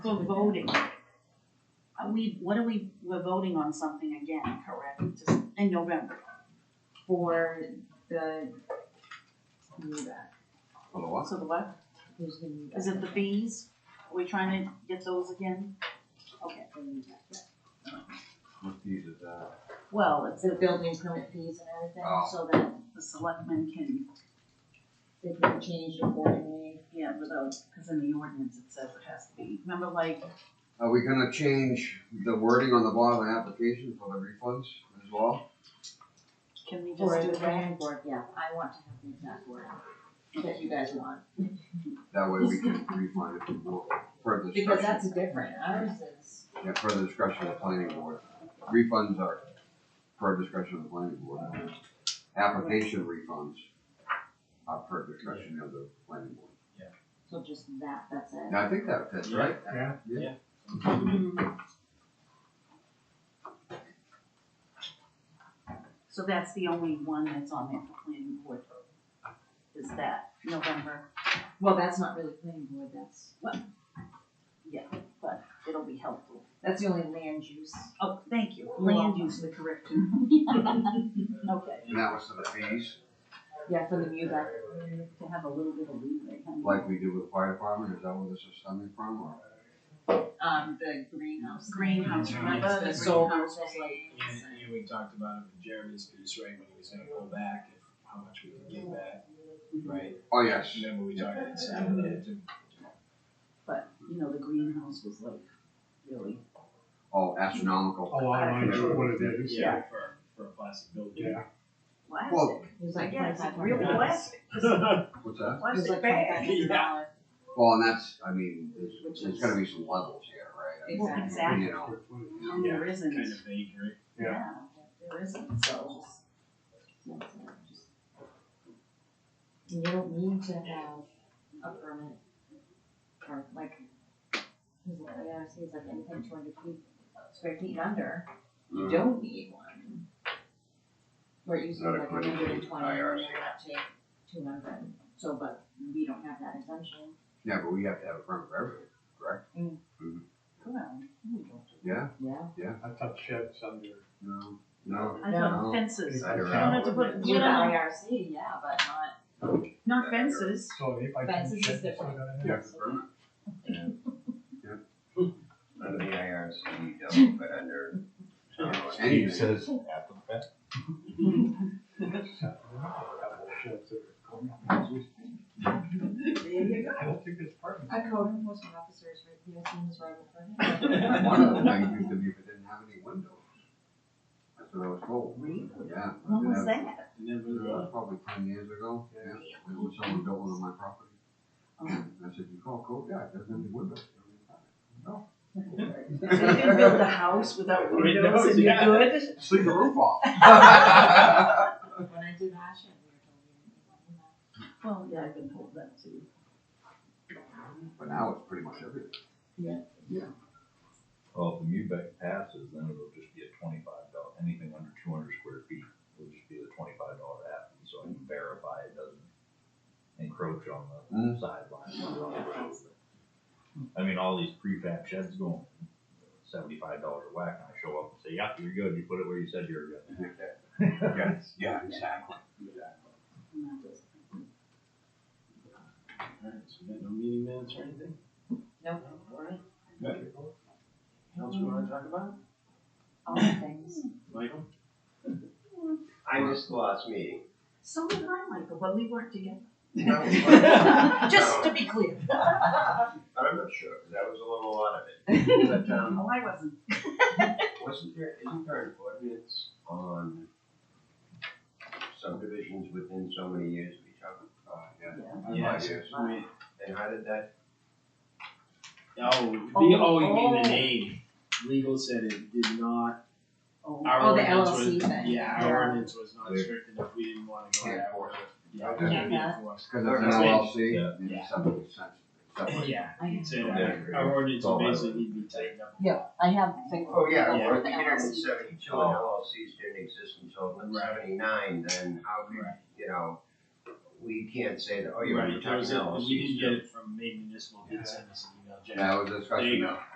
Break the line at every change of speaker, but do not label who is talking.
So voting. Are we, what are we, we're voting on something again, correct, Just in November?
for the new back.
On the what?
So the what,
Who's the new back?
is it the fees? Are we trying to get those again? Okay,
The new back, yeah.
What fees is that?
well, it's
The building permit fees and everything,
Oh.
so that
the selectmen can,
they can change accordingly.
yeah, without, because in the ordinance it says it has to be, remember like,
Are we gonna change the wording on the bottom of the application for the refunds as well?
can we
Or
just do that?
the planning board, yeah, I want to have the exact word that you guys want,
That way we can refund it for more- further discretion.
because that's different, ours is,
Yeah, further discretion of the planning board. Refunds are per discretion of the planning board. Application refunds are per discretion of the planning board.
so just that, that's it.
Now, I think that fits, right?
Yeah.
Yeah.
Mhm. So that's the only one that's on there for planning board, is that November,
Well, that's not really planning board, that's,
but it'll be helpful.
that's the only land use.
Oh, thank you,
You're
land
welcome.
use, the correction. Okay,
And that was for the fees,
Yeah, for the new back.
to have a little bit of leeway, huh?
like we do with the fire department, is that where this is coming from, or?
um, the greenhouse.
Greenhouse, remember?
The
The
solar
greenhouse.
things.
And, and we talked about it with Jeremy's piece, right, when he was gonna pull back, if, how much we could give back, right?
Oh, yes.
Remember we talked about Saturday, too.
But, you know, the greenhouse was like, really,
Oh, astronomical.
Oh, I'm not sure what it is.
Yeah, for, for a plastic building.
Yeah.
Well,
plastic.
It was like
Yeah, it's
twenty-five
real
hundred dollars.
plastic, just
What's that?
It was
plastic
like twenty-five
bag.
hundred dollars.
Well, and that's, I mean, there's,
Which
there's
is-
gotta be some levels here, right? I mean,
Well,
exactly.
You know,
No, there isn't,
Kind of vague, right?
Yeah.
Yeah, there isn't, so,
You don't need to have a permit, or like, he's like, the ARC is like anything two hundred feet, square feet and under, you
Mm-hmm.
don't need one. We're using
Not
like a
according to
hundred and twenty, and
IRC.
then up to two hundred, so, but we don't have that exemption.
yeah, but we have to have a permit for everything, correct?
well, here we go.
Yeah?
Yeah.
I thought sheds under.
No. No.
I
No.
thought fences,
Yeah.
Right
you don't have
around.
to put,
With
you
the
know,
IRC, yeah, but not,
not fences,
So if I
Fences
can
is
shed, it's
different.
not gonna happen.
Yeah, it's a permit.
Under the IRC, double, E but under.
Anything. says.
Couple of sheds that are coming up. I don't think it's part of it.
a code enforcement officer is right, you guys seen his right in front of you.
One of the things used to be if it didn't have any windows. That's what I was told.
Really?
Yeah.
when was
yeah,
that?
And then we
that
were,
was Probably ten years ago, yeah, it was someone built one on my property. And I said, you call code, yeah, it doesn't have any windows. No.
So you can build a house without windows and you're good?
Sleep the roof off.
When I did Ashen, we were told you didn't need one.
Well, Oh, yeah, I've been told that too.
But now it's pretty much everything.
Well, if the MUBEC passes, then it'll just be a twenty-five dollar, anything under two hundred square feet will just be the twenty-five dollar app, and so I can verify it doesn't encroach on the
Mm.
sideline. or on the road. I mean, all these prefab sheds going seventy-five dollars a whack, and I show up and say, yep, you're good, you put it where you said you were good.
Yes, yeah, exactly.
alright, so we got no meeting minutes or anything?
Nope.
Alright, good. What else we wanna talk about?
All the things.
Michael?
I missed the last meeting.
So did I, Michael, but we weren't together.
I'm
Just to be clear.
not sure, 'cause I was a little out of it. But, um,
No, Oh, I wasn't.
wasn't there, isn't there an ordinance on subdivisions within so many years of each other?
Uh, yeah.
Yes.
Yes.
I mean,
And how did that,
Oh, the-
Oh,
oh, you mean
oh.
the name? Legal said it did not,
Oh,
our
Oh, the
ordinance was,
LLC thing.
yeah,
Yeah.
our ordinance was not
Yeah.
strict enough, we didn't wanna go
Yeah.
that way. Yeah,
Okay.
it was
Yeah.
enforced.
Cause it's an
Yeah.
LLC,
Yeah.
it's something, it's something.
Yeah,
I have,
so
Yeah.
our ordinance
Oh, I-
basically need to be tightened up.
yeah, I have the thing.
oh, yeah,
Yeah.
well,
for
if
the E.
you did it in
LLC.
Oh,
seventy-two and LLCs didn't exist until
Right.
seventy-nine, then how could,
Right.
you know,
we can't say that, oh, you're
Right,
already
there
talking
was a-
LLC.
We didn't get it from Maine Municipal, did send us an email, Jack.
That was a
There
discussion
you
now.
go.